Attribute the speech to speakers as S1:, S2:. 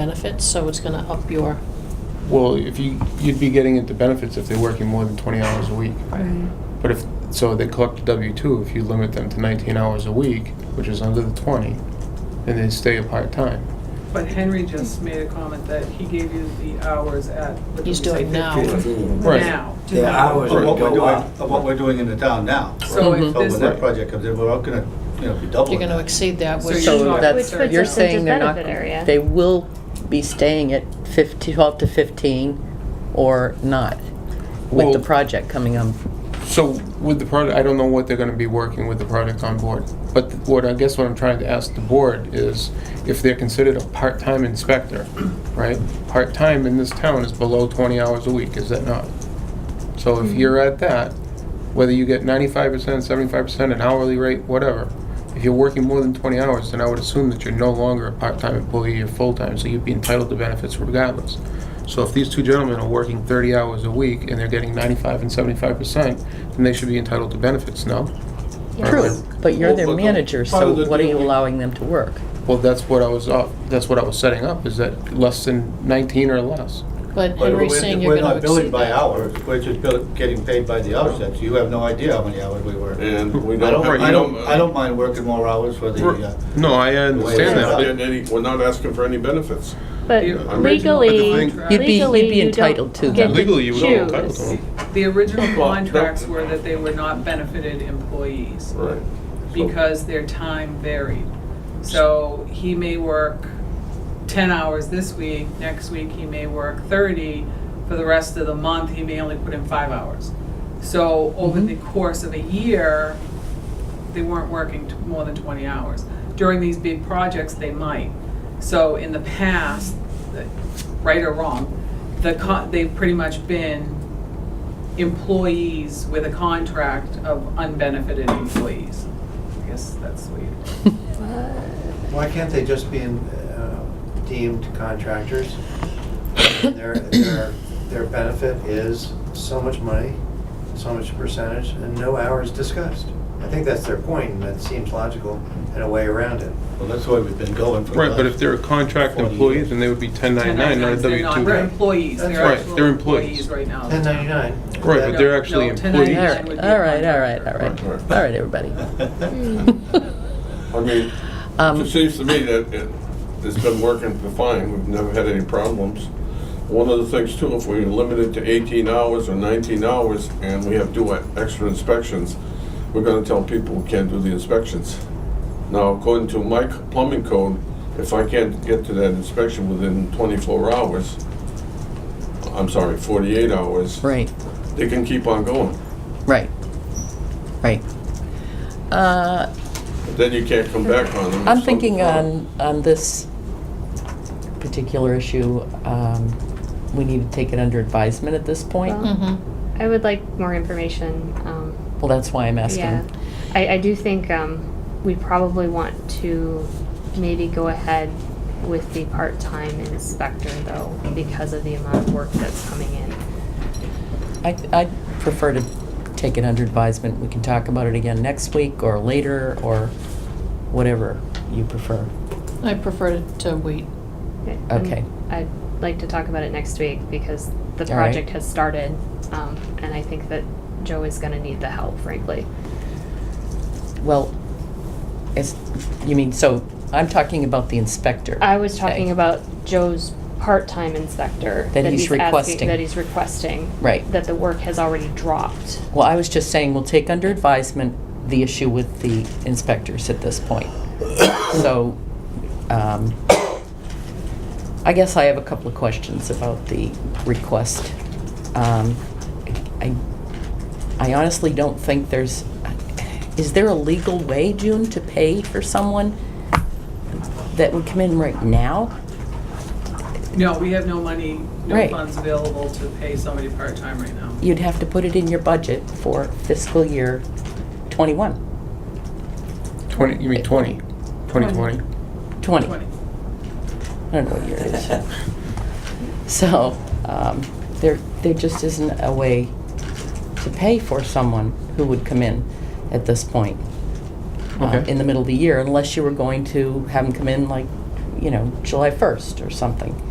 S1: benefits, so it's going to up your,
S2: Well, if you, you'd be getting into benefits if they're working more than 20 hours a week. But if, so they collect W-2, if you limit them to 19 hours a week, which is under the 20, then they stay a part-time.
S3: But Henry just made a comment that he gave you the hours at. what did
S1: He's
S3: we say,
S1: doing now.
S3: 15?
S2: Right.
S3: Now.
S4: Their hours
S5: Of
S4: would
S5: what we're
S4: go
S5: doing,
S4: up.
S5: of what we're doing in the town now.
S3: So
S1: Mhm.
S3: if
S5: So when
S3: this,
S5: that project comes in, we're all gonna, you know, be doubling.
S1: you're going to
S5: that.
S1: exceed that,
S3: So
S1: which,
S3: you-
S6: So
S3: Which
S6: that's,
S3: puts
S6: you're
S3: us
S6: saying
S7: into
S6: they're not,
S7: benefit area.
S6: they will be staying at 15, 12 to 15 or not with the
S2: Well-
S6: project coming on?
S2: So with the product, I don't know what they're gonna be working with the product on board. But th- what, I guess what I'm trying to ask the board is if they're considered a part-time inspector, right? Part-time in this town is below twenty hours a week, is that not? So if you're at that, whether you get ninety-five percent, seventy-five percent, an hourly rate, whatever, if you're working more than twenty hours, then I would assume that you're no longer a part-time employee, you're full-time, so you'd be entitled to benefits regardless. So if these two gentlemen are working 30 hours a week and they're getting 95 and 75 percent, then they should be entitled to benefits, no?
S7: Yeah.
S6: True, but you're their
S5: Well, but the-
S6: manager,
S5: part
S6: so
S5: of the
S6: what are you
S5: deal-
S6: allowing them to work?
S2: Well, that's what I was, uh, that's what I was setting up, is that less than 19 or less.
S1: but
S5: But
S1: Henry's
S5: we're-
S1: saying you're going to
S5: We're not billing
S1: exceed
S5: by
S1: that.
S5: hour, we're just bill- getting paid by the hour, so you have no idea how many hours we work.
S8: And we
S5: I
S8: don't
S5: don't,
S8: have. uh,
S5: I don't, I don't mind working more hours for the, uh,
S2: No, I
S8: We're
S2: understand
S8: not
S2: that,
S8: getting any- we're not asking for any benefits.
S7: But
S3: The original
S7: legally,
S3: contract-
S6: You'd be- you'd
S7: legally,
S6: be
S7: you
S6: entitled to
S7: don't get
S6: them.
S2: Legally, you would be
S7: to
S2: entitled to
S7: choose.
S2: them.
S3: The original
S8: Well,
S3: contracts
S8: that-
S3: were that they were not benefited employees
S8: Right.
S3: because their time varied. So he may work ten hours this week, next week he may work thirty, for the rest of the month, he may only put in five hours. So over the course of a year, they weren't working t- more than 20 hours. During these big projects, they might. So in the past, the- right or wrong, the con, they've pretty much been employees with a contract of unbenefited employees. I guess that's the way you.
S4: Why can't they just be uh, deemed contractors? Their, their, their benefit is so much money, so much percentage, and no hours discussed. I think that's their point, and that seems logical and a way around it.
S5: well, that's the way we've been going for the
S2: Right, but if
S5: last-
S2: they're a contract employee, then they would be 1099, not a
S3: 1099s, They're not, they're
S2: W-2.
S3: employees,
S4: That's
S3: they're
S4: right,
S3: actual
S2: they're employees.
S3: employees right now.
S4: Ten ninety-nine.
S2: Right, but they're
S3: No,
S2: actually
S3: no,
S6: All
S2: employees.
S3: That
S6: right,
S3: would
S6: all
S3: be a
S6: right, all right, all right, all
S8: contractor.
S6: right, everybody.
S1: Hmm.
S8: I mean, it
S6: Um,
S8: just seems to me that it, it's been working fine, we've never had any problems. One of the things too, if we limit it to eighteen hours or nineteen hours and we have do extra inspections, we're gonna tell people we can't do the inspections. Now, according to my c- plumbing code, if I can't get to that inspection within twenty-four hours, I'm sorry, forty-eight hours,
S6: Right,
S8: they can keep on going.
S6: right, right. Uh,
S8: Then you can't come back on them. if
S6: I'm
S8: something-
S5: uh,
S6: thinking on, on this particular issue, um, we need to take it under advisement at this point.
S7: Well-
S1: Mhm.
S7: I would like more information. Um,
S6: Well, that's why I'm
S7: yeah,
S6: asking.
S7: I, I do think um, we probably want to maybe go ahead with the part-time inspector though, because of the amount of work that's coming in.
S6: I, I prefer to take it under advisement. We can talk about it again next week or later or whatever you prefer.
S1: I prefer to- to wait.
S7: And
S6: Okay.
S7: I'd like to talk about it next week because the
S6: All right.
S7: project has started, um, and I think that Joe is gonna need the help, frankly.
S6: Well, it's, you mean, so I'm talking about the inspector.
S7: I was
S6: Okay.
S7: talking about Joe's part-time inspector.
S6: That he's
S7: asking-
S6: requesting.
S7: That he's requesting.
S6: Right.
S7: That the work has already dropped.
S6: Well, I was just saying, we'll take under advisement the issue with the inspectors at this point. So, um, I guess I have a couple of questions about the request. Um, I I honestly don't think there's, is there a legal way, June, to pay for someone that would come in right now?
S3: No, we have no money, no
S6: Right.
S3: funds available to pay somebody part-time right now.
S6: You'd have to put it in your budget for fiscal year '21,
S2: 20, you mean 20, 2020?
S6: '20.
S3: Twenty.
S6: I don't know what year it is. So, um, there, there just isn't a way to pay for someone who would come in at this point. uh,
S2: Okay.
S6: In the middle of the year, unless you were going to have them come in like, you know, July 1st or something.